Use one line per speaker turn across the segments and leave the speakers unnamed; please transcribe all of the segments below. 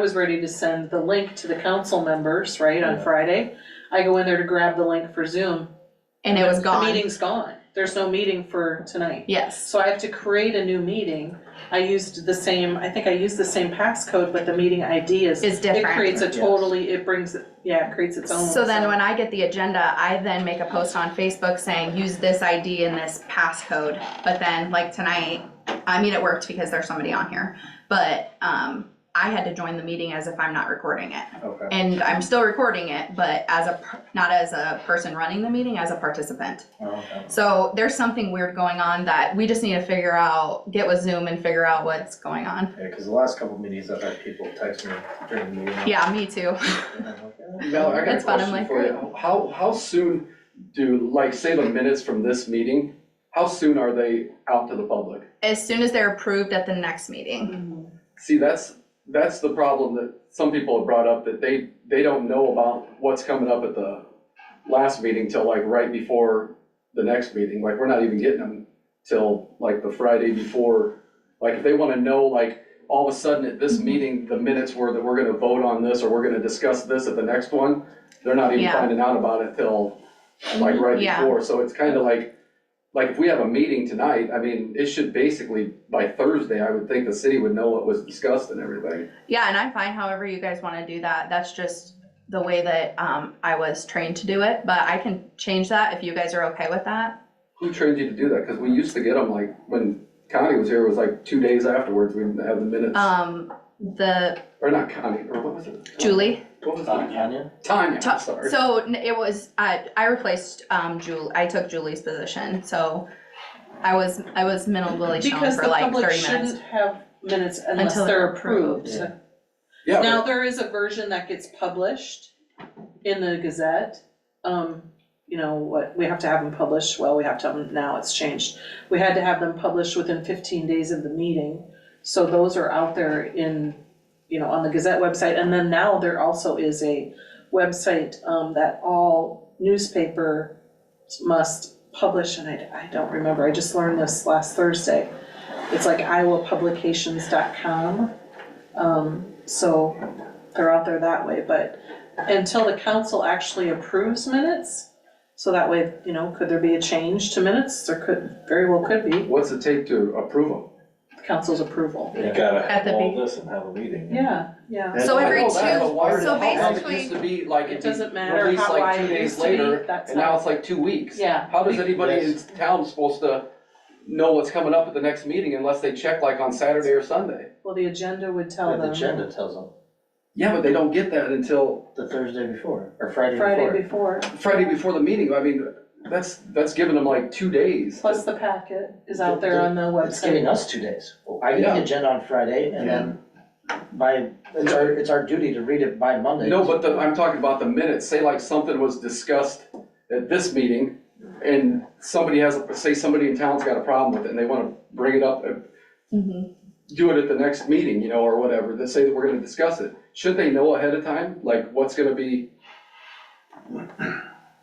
I was ready to send the link to the council members, right, on Friday. I go in there to grab the link for Zoom.
and it was
The
gone,
meeting's gone. There's no meeting for tonight.
yes.
So I have to create a new meeting. I used the same, I think I used the same passcode, but the meeting ID is.
Is different.
It creates a
Yes.
totally, it brings, yeah, it creates its own.
So then when I get the agenda, I then make a post on Facebook saying, use this ID and this passcode. But then like tonight, I mean, it worked because there's somebody on here, but, um, I had to join the meeting as if I'm not recording it.
Okay.
And I'm still recording it, but as a, per- not as a person running the meeting, as a participant.
Oh, okay.
So there's something weird going on that we just need to figure out, get with Zoom and figure out what's going on.
Yeah, cause the last couple meetings I've had people text me during the meeting.
Yeah, me too.
and I'm like, eh.
Mel, I got a
That's fun, I'm
question
like,
for you. How, how soon do, like, say the minutes from this meeting, how soon are they out to the public?
As soon as they're approved at the next meeting.
Mhm.
See, that's, that's the problem that some people have brought up, that they, they don't know about what's coming up at the last meeting till like right before the next meeting, like, we're not even getting them till like the Friday before. Like, if they wanna know, like, all of a sudden at
Mm-hmm.
this meeting, the minutes were that we're gonna vote on this, or we're gonna discuss this at the next one, they're not even
Yeah.
finding out about it till like right
Yeah.
before, so it's kinda like, like if we have a meeting tonight, I mean, it should basically, by Thursday, I would think the city would know what was discussed and everything.
Yeah, and I'm fine however you guys wanna do that. That's just the way that, um, I was trained to do it, but I can change that if you guys are okay with that.
Who trained you to do that? Cause we used to get them like, when Connie was here, it was like two days afterwards, we'd have the minutes,
Um, the,
or not Connie, or what was it?
Julie,
What was
Uh,
it?
Tanya?
Tanya,
Ta-
I'm sorry.
so n- it was, I, I replaced, um, Julie, I took Julie's position, so I was, I was minimally shown
Because
for
the
like
public
thirty minutes.
shouldn't have minutes unless
Until
they're
they're approved.
approved.
Yeah.
Yeah,
Now,
but-
there is a version that gets published in the Gazette. Um, you know, what, we have to have them published, well, we have to have them, now it's changed. We had to have them published within fifteen days of the meeting. So those are out there in, you know, on the Gazette website, and then now there also is a website, um, that all newspaper must publish, and I, I don't remember, I just learned this last Thursday. It's like iowapublications.com. Um, so they're out there that way, but until the council actually approves minutes, so that way, you know, could there be a change to minutes? There could, very well could be,
what's it take to approve them?
council's approval.
You gotta
At
have
the
all this and have a
Mm-hmm.
meeting.
Yeah, yeah.
That's
So
why-
every
I know that,
two-
but why did
so
it- how come
basically-
It used to be like,
It
it'd
doesn't
be
matter
released
how
like
wide
two
it
days
used to be,
later,
that's
and now
how,
it's like two weeks.
yeah,
How does anybody in
Yes.
town supposed to know what's coming up at the next meeting unless they check like on Saturday or Sunday?
well, the agenda would tell
The
them
agenda tells them,
Yeah, but they don't get that until
the Thursday before, or Friday
Friday
before.
before,
Friday before the meeting, I mean, that's, that's giving them like two days.
plus the packet is out there on the
It's giving
website.
us two days. Well, I get
Yeah.
the agenda on Friday and then by, it's our, it's our duty to read it by Monday.
No, but the, I'm talking about the minutes, say like something was discussed at this meeting, and somebody has, a- say somebody in town's got a problem with it, and they wanna bring it up, uh,
Mhm.
do it at the next meeting, you know, or whatever, that say that we're gonna discuss it. Should they know ahead of time, like what's gonna be?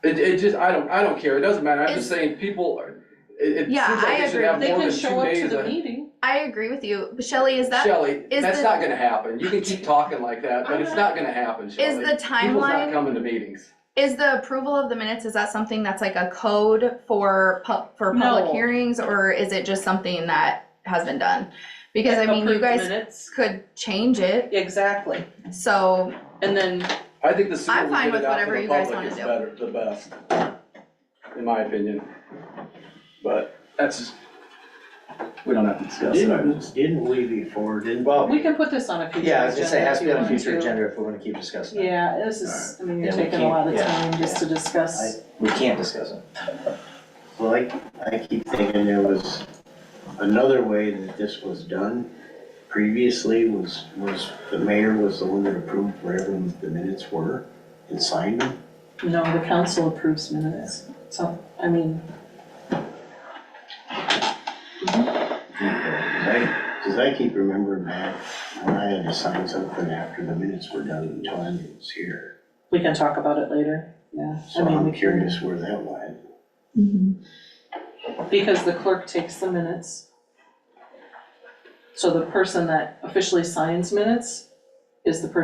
It, it just, I don't, I don't care, it doesn't matter, I'm
It's-
just saying, people, are- it, it seems
Yeah,
like
I
they should
agree.
have
They
more
can
than two
show up to
days.
the
uh,
meeting,
I agree with you, But Shelley, is that,
Shelley,
is
that's
the-
not gonna happen, you can keep talking like that, but it's not gonna happen, Shelley.
is the
People's not
timeline,
coming to meetings.
is the approval of the minutes, is that something that's like a code for pub, for public
No.
hearings? Or is it just something that has been done? Because I mean, you
approved
guys
minutes,
could change it,
exactly,
so,
and then
I think the sooner
I'm
we
fine
get
with
it out to
whatever
the
you guys
public
wanna
is
do.
better, the best, in my opinion. But that's, we don't have to discuss it, I
Didn't,
just.
didn't we before, didn't?
Well,
we can put this on a future
Oh. yeah, I was
agenda
gonna say, it has
if
to
you
be on a
want
future
to.
agenda if we're gonna keep discussing it.
Yeah, this is, I mean, you're
Yeah, we
taking a lot of
can't-
time
yeah,
just to
I,
discuss,
we can't discuss it.
Well, I, I keep thinking there was another way that this was done previously was, was the mayor was the one that approved wherever the minutes were and signed them.
no, the council approves minutes, so, I mean,
Cause I keep remembering back when I had to sign something after the minutes were done and Tanya was here.
we can talk about it later, yeah. I
So
mean,
I'm
we can-
curious where that went.
Because the clerk takes the minutes. So the person that officially signs minutes is the person